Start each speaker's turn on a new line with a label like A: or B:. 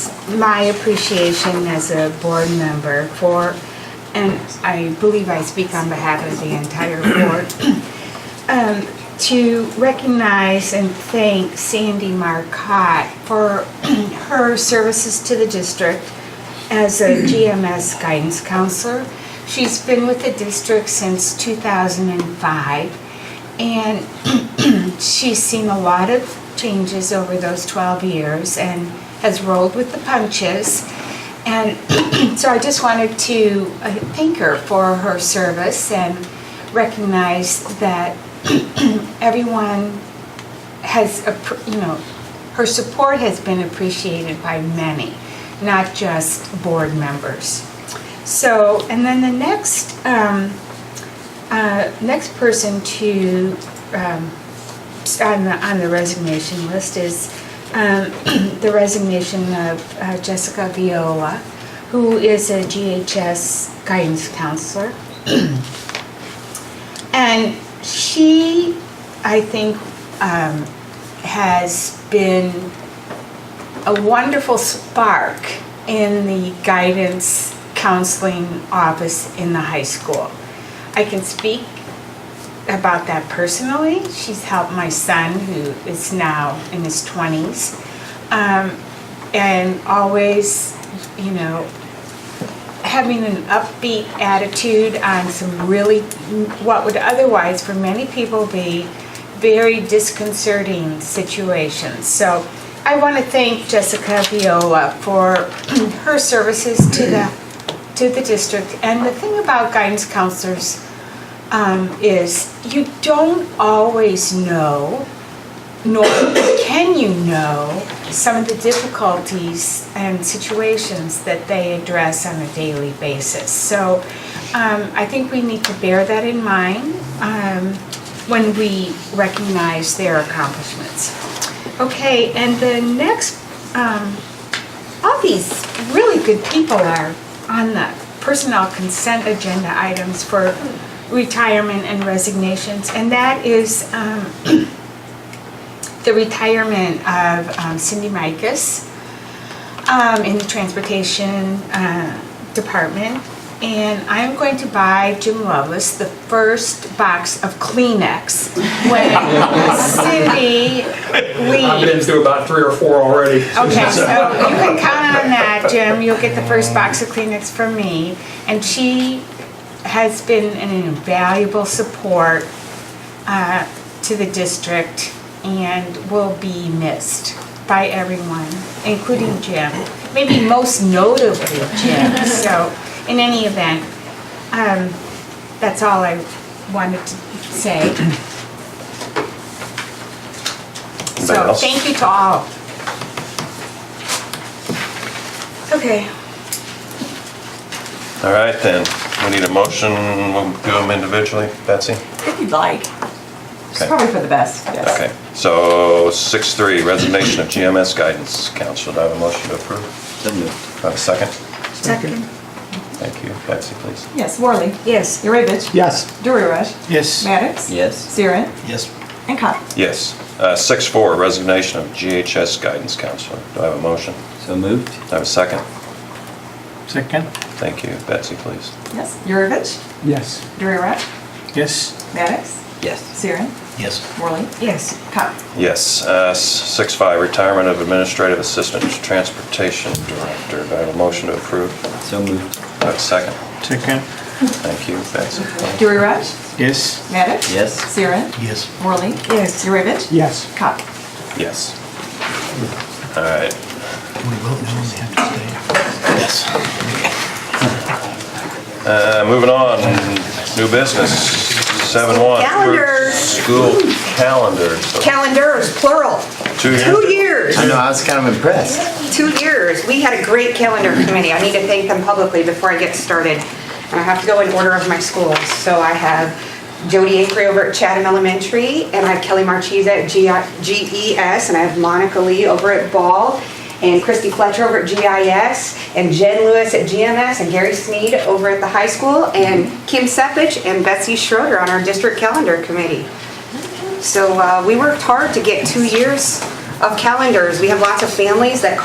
A: my appreciation as a board member for, and I believe I speak on behalf of the entire board, um, to recognize and thank Sandy Marcotte for her services to the district as a GMS guidance counselor. She's been with the district since 2005, and she's seen a lot of changes over those 12 years and has rolled with the punches. And so I just wanted to uh, thank her for her service and recognize that everyone has, appr- you know, her support has been appreciated by many, not just board members. So, and then the next, um, uh, next person to, um, on the, on the resignation list is um, the resignation of uh, Jessica Viola, who is a GHS guidance counselor. And she, I think, um, has been a wonderful spark in the guidance counseling office in the high school. I can speak about that personally. She's helped my son, who is now in his 20s, um, and always, you know, having an upbeat attitude on some really, what would otherwise for many people be very disconcerting situations. So I want to thank Jessica Viola for her services to the, to the district. And the thing about guidance counselors um, is you don't always know nor can you know some of the difficulties and situations that they address on a daily basis. So um, I think we need to bear that in mind um, when we recognize their accomplishments. Okay, and the next, um, all these really good people are on the personnel consent agenda items for retirement and resignations, and that is. Um, the retirement of um, Cindy Micus um, in the transportation uh, department. And I'm going to buy Jim Lovelace the first box of Kleenex when Cindy
B: I've been
A: leaves.
B: through about three or four already.
A: Okay, so you can count on that, Jim. You'll get the first box of Kleenex from me. And she has been an invaluable support uh, to the district and will be missed by everyone, including Jim. Maybe most notably Jim. So, in any event, um, that's all I wanted to say.
C: Anybody
A: So,
C: else?
A: thank you to all. Okay,
C: All right, then, we need a motion, we'll do them individually, Betsy?
D: If you'd like. It's
C: Okay.
D: probably for the best, yes.
C: Okay, so six three, resignation of GMS guidance council, do I have a motion to approve?
E: So moved.
C: Do I have a second?
A: second?
C: Thank you, Betsy, please.
D: Yes, Worley.
A: Yes.
D: Yurevich.
F: Yes.
D: Durirash.
F: Yes.
D: Maddox.
E: Yes.
D: Siren.
F: Yes.
D: And Cottle.
C: Yes, uh, six four, resignation of GHS guidance counselor, do I have a motion?
E: So moved.
C: Do I have a second?
F: Second.
C: Thank you, Betsy, please.
D: Yes, Yurevich.
F: Yes.
D: Durirash.
F: Yes.
D: Maddox.
E: Yes.
D: Siren.
F: Yes.
D: Worley.
A: Yes.
D: Cottle.
C: Yes, uh, s- six five, retirement of administrative assistant to transportation director, do I have a motion to approve?
E: So moved.
C: Do I have a second?
F: Second.
C: Thank you, Betsy.
D: Durirash.
F: Yes.
D: Maddox.
E: Yes.
D: Siren.
F: Yes.
D: Worley.
A: Yes.
D: Yurevich.
F: Yes.
D: Cottle.
C: Yes. All right,
F: We vote now and they have to stay. Yes.
C: Uh, Moving on, new business, seven one.
G: Calendars.
C: School calendars. So
G: Calendars, plural.
C: Two years.
G: Two years,
E: I know, I was kind of impressed.
G: two years. We had a great calendar committee. I need to thank them publicly before I get started. And I have to go in order of my schools. So I have Jody Acree over at Chatham Elementary, and I have Kelly Marchese at G- GES, and I have Monica Lee over at Ball, and Christy Fletcher over at GIS, and Jen Lewis at GMS, and Gary Sneed over at the high school, and Kim Sepich and Betsy Schroeder on our district calendar committee. So uh, we worked hard to get two years of calendars. We have lots of families that